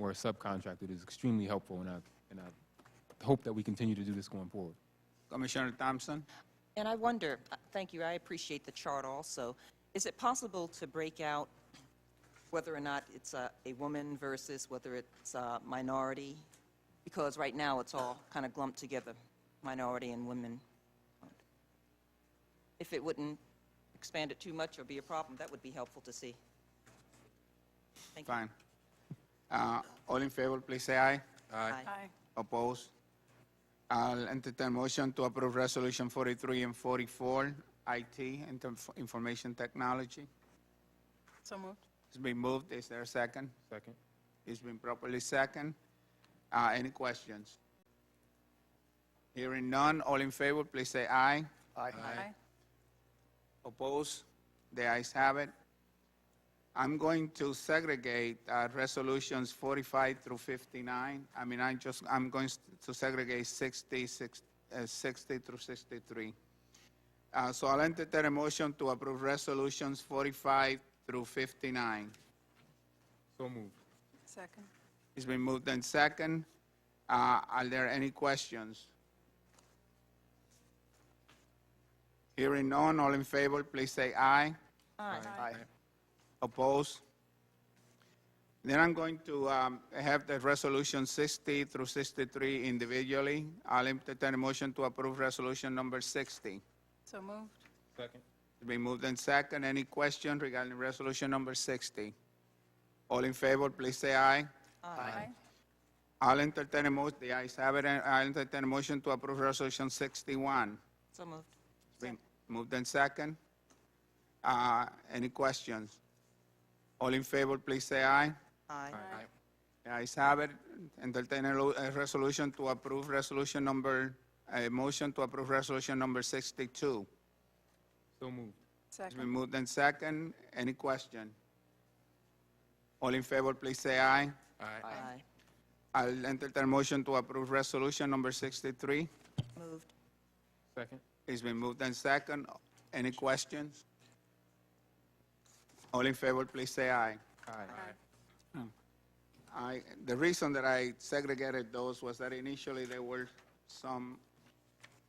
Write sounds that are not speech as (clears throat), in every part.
or a subcontractor is extremely helpful, and I, and I hope that we continue to do this going forward. Commissioner Thompson? And I wonder, uh, thank you, I appreciate the chart also. Is it possible to break out whether or not it's a, a woman versus whether it's a minority? Because right now, it's all kind of lumped together, minority and women. If it wouldn't expand it too much or be a problem, that would be helpful to see. Thank you. Fine. Uh, All in favor, please say aye. Aye. Opposed? I'll entertain motion to approve Resolution 43 and 44, IT, Inter- Information Technology. So moved. It's been moved. Is there a second? Second. It's been properly second. Uh, Any questions? Hearing none, all in favor, please say aye. Aye. Opposed? The ayes have it. I'm going to segregate uh, resolutions 45 through 59. I mean, I just, I'm going s- to segregate 60, six- uh, 60 through 63. Uh, So I'll entertain a motion to approve resolutions 45 through 59. So moved. Second. It's been moved and second. Uh, Are there any questions? Hearing none, all in favor, please say aye. Aye. Opposed? Then I'm going to um, have the resolution 60 through 63 individually. I'll entertain a motion to approve resolution number 60. So moved. Second. It's been moved and second. Any question regarding resolution number 60? All in favor, please say aye. Aye. I'll entertain a motion, the ayes have it, and I'll entertain a motion to approve Resolution 61. So moved. It's been moved and second. Uh, Any questions? All in favor, please say aye. Aye. The ayes have it, entertain a lo- a uh, resolution to approve Resolution Number, a motion to approve Resolution Number 62. So moved. It's been Second. moved and second. Any question? All in favor, please say aye. Aye. I'll entertain a motion to approve Resolution Number 63. Moved. Second. It's been moved and second. Any questions? All in favor, please say aye. Aye. I, the reason that I segregated those was that initially there were some,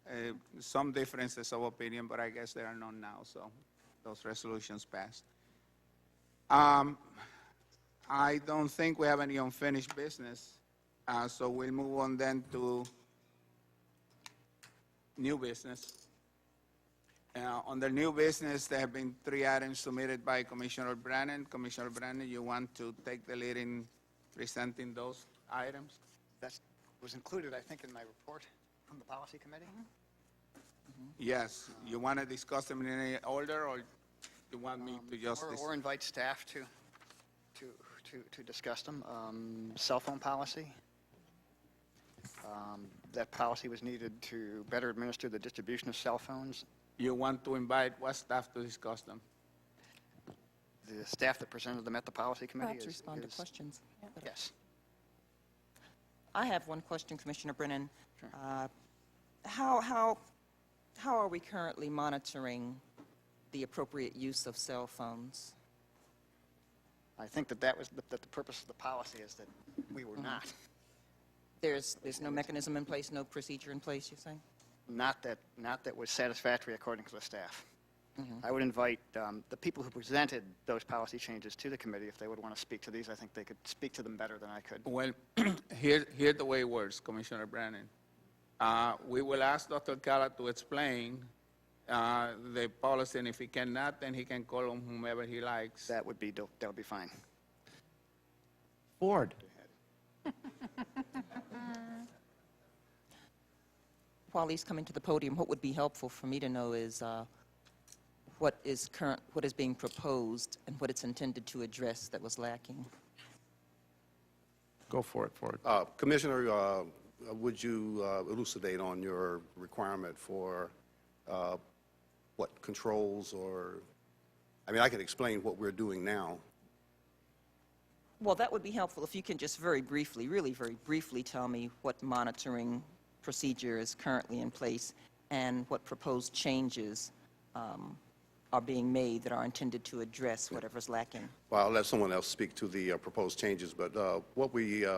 uh, some differences of opinion, but I guess there are none now, so those resolutions passed. Um, I don't think we have any unfinished business, uh, so we'll move on then to new business. Uh, On the new business, there have been three items submitted by Commissioner Brennan. Commissioner Brennan, you want to take the lead in presenting those items? That was included, I think, in my report from the policy committee. Mm-hmm. Yes. You want to discuss them in any order, or you want me to just? Um, Or- dis- Or invite staff to, to, to, to discuss them. Um, Cell phone policy. Um, That policy was needed to better administer the distribution of cell phones. You want to invite what staff to discuss them? The staff that presented them at the policy committee is. Perhaps respond to is- questions. Yes. I have one question, Commissioner Brennan. Uh, How, how, how are we currently monitoring the appropriate use of cell phones? I think that that was, that the purpose of the policy is that we Mm-hmm. were not, There's, there's no mechanism in place, no procedure in place, you're saying? not that, not that was satisfactory according to the staff. I would invite um, the people who presented those policy changes to the committee, if they would want to speak to these, I think they could speak to them better than I could. Well, (clears throat) here, here the way it works, Commissioner Brennan. Uh, We will ask Dr. Cala to explain uh, the policy, and if he cannot, then he can call on whomever he likes. That would be, do- that would be fine. Ford. While he's coming to the podium, what would be helpful for me to know is uh, what is current, what is being proposed and what it's intended to address that was lacking? Go for it, Ford. Uh, Commissioner, uh, would you uh, elucidate on your requirement for uh, what controls or, I mean, I can explain what we're doing now. Well, that would be helpful if you can just very briefly, really very briefly, tell me what monitoring procedure is currently in place and what proposed changes um, are being made that are intended to address whatever's lacking. Well, I'll let someone else speak to the uh, proposed changes, but uh, what we uh,